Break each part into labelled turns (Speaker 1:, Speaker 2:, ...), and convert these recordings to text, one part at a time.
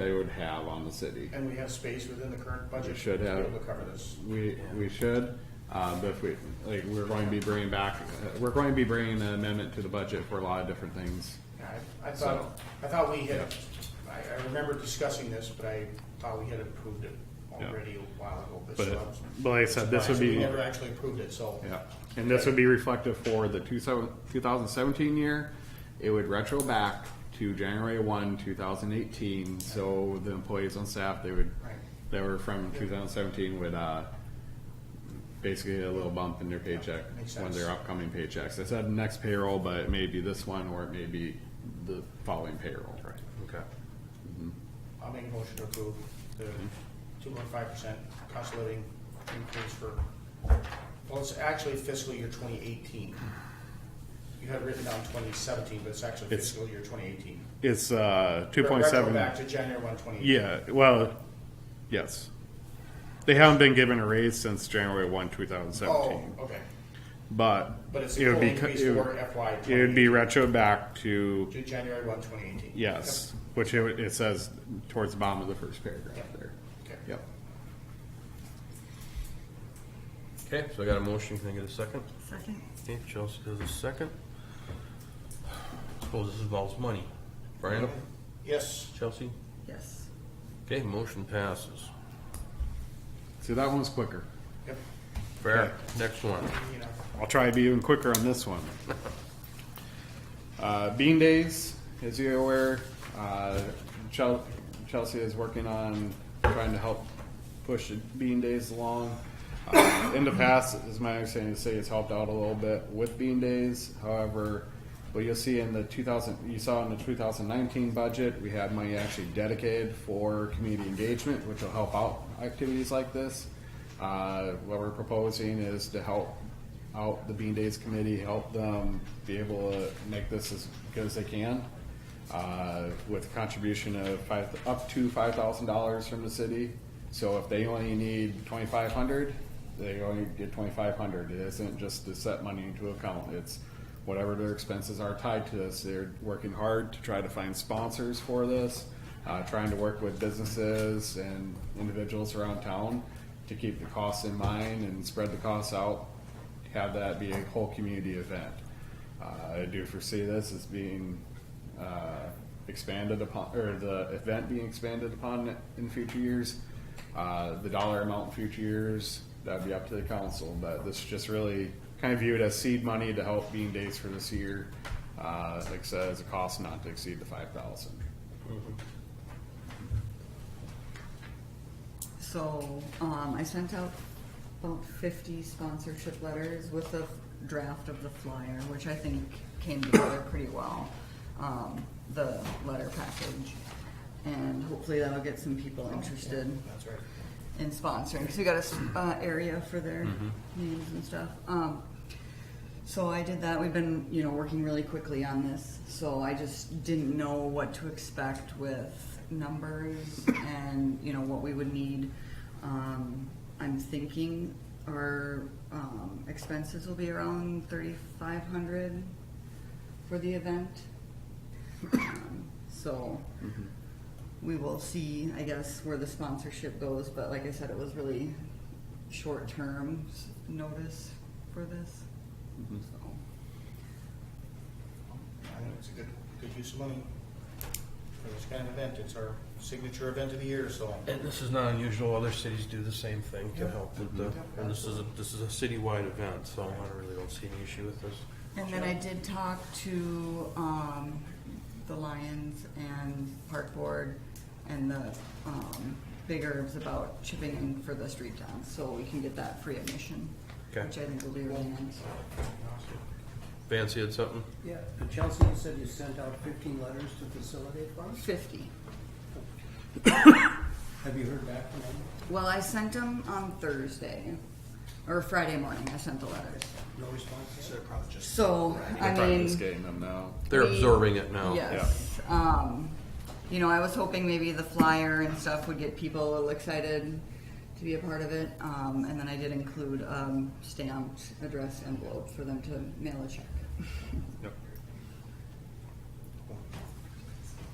Speaker 1: they would have on the city.
Speaker 2: And we have space within the current budget.
Speaker 1: We should
Speaker 2: To
Speaker 1: have.
Speaker 2: be able to cover this.
Speaker 1: We, we should, uh, but if we, like, we're going to be bringing back, uh, we're going to be bringing an amendment to the budget for a lot of different things.
Speaker 2: Yeah, I, I thought, I thought we had, I, I remember discussing this, but I thought we had approved it already a while ago, but.
Speaker 3: But,
Speaker 2: so
Speaker 3: it-
Speaker 2: I was-
Speaker 3: but like I said, this would
Speaker 2: Right, so We
Speaker 3: be,
Speaker 2: never actually approved it, so.
Speaker 1: Yeah, and this would be reflective for the two seven, two thousand seventeen year. It would retro back to January one, two thousand eighteen, so the employees on staff, they would,
Speaker 2: Right.
Speaker 1: that were from two thousand seventeen would, uh, basically get a little bump in their paycheck,
Speaker 2: makes
Speaker 1: when
Speaker 2: sense.
Speaker 1: their upcoming paychecks. I said next payroll, but it may be this one, or it may be the following payroll. Right.
Speaker 3: okay.
Speaker 2: Mm-hmm. I'll make a motion to approve the
Speaker 1: Mm-hmm.
Speaker 2: two point five percent cost of living increase for, well, it's actually fiscal year twenty eighteen. You had written down twenty seventeen, but it's actually
Speaker 3: It's-
Speaker 2: fiscal year twenty eighteen.
Speaker 3: It's, uh, two point seven.
Speaker 2: Back to January one, twenty eighteen.
Speaker 3: Yeah, well, yes. They haven't been given a raise since January one, two thousand
Speaker 2: Oh,
Speaker 3: seventeen,
Speaker 2: okay,
Speaker 3: but
Speaker 2: but it's
Speaker 3: it
Speaker 2: a
Speaker 3: would
Speaker 2: full
Speaker 3: be,
Speaker 2: increase
Speaker 3: it
Speaker 2: for
Speaker 3: would-
Speaker 2: FY
Speaker 3: it would
Speaker 2: twenty,
Speaker 3: be retro back to,
Speaker 2: to January one, twenty eighteen.
Speaker 3: yes, which it, would- it says towards the bottom of the first paragraph
Speaker 2: Yep.
Speaker 3: there.
Speaker 2: Okay.
Speaker 3: Yep.
Speaker 4: Okay, so I got a motion, can I get a second?
Speaker 5: Second.
Speaker 4: Okay, Chelsea does a second. Suppose this involves money. Brian,
Speaker 2: Yes.
Speaker 4: Chelsea?
Speaker 5: Yes.
Speaker 4: Okay, motion passes.
Speaker 1: See, that one's quicker.
Speaker 2: Yep,
Speaker 4: Fair, next one.
Speaker 2: you know,
Speaker 1: I'll try to be even quicker on this one. Uh, Bean Days, as you're aware, uh, Chel- Chelsea is working on trying to help push Bean Days along. Uh, in the past, as my understanding, the city has helped out a little bit with Bean Days. However, what you'll see in the 2000, you saw in the 2019 budget, we had money actually dedicated for community engagement, which will help out activities like this. Uh, what we're proposing is to help out the Bean Days Committee, help them be able to make this as good as they can. Uh, with contribution of five, up to five thousand dollars from the city. So if they only need twenty-five hundred, they only get twenty-five hundred. It isn't just to set money into account. It's whatever their expenses are tied to this. They're working hard to try to find sponsors for this, uh, trying to work with businesses and individuals around town to keep the costs in mind and spread the costs out have that be a whole community event. Uh, I do foresee this as being uh, expanded upon, or the event being expanded upon in future years. Uh, The dollar amount in future years, that'd be up to the council, but this is just really kind of viewed as seed money to help Bean Days for this year. Uh, Like I said, as a cost not to exceed the five thousand.
Speaker 5: So, um, I sent out about fifty sponsorship letters with a draft of the flyer, which I think came together pretty well. Um, the letter package, and hopefully that'll get some people interested
Speaker 2: that's right.
Speaker 5: in sponsoring, cause we got a, s- uh, area for their names and stuff. Um, So I did that. We've been, you know, working really quickly on this, so I just didn't know what to expect with numbers and, you know, what we would need. Um, I'm thinking our, um, expenses will be around thirty-five hundred for the event. Um, So we will see, I guess, where the sponsorship goes, but like I said, it was really short-term s- notice for this. So,
Speaker 2: I think it's a good, good use of money for this kind of event. It's our signature event of the year, so.
Speaker 4: And this is not unusual, other cities do the same thing to help with the, and this is, a this is a citywide event, so I really don't see any issue with this.
Speaker 5: And then I did talk to, um, the Lions and Park Board and the, um, Big Herbs about chipping in for the street dance, so we can get that free admission.
Speaker 4: Okay.
Speaker 5: Which I think will be really nice.
Speaker 4: Vance, you had something?
Speaker 6: Yeah, and Chelsea, you said you sent out fifteen letters to facilitate funds?
Speaker 5: Fifty.
Speaker 6: Have you heard back from them?
Speaker 5: Well, I sent them on Thursday, or Friday morning, I sent the letters.
Speaker 6: No responses? They're probably just.
Speaker 5: So, I
Speaker 1: They're probably just
Speaker 5: mean,
Speaker 1: getting them now.
Speaker 4: They're
Speaker 5: We-
Speaker 4: absorbing it now.
Speaker 5: yes, um, you know, I was hoping maybe the flyer and stuff would get people a little excited to be a part of it, um, and then I did include, um, stamped address envelope for them to mail a check.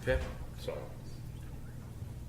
Speaker 4: Okay, so,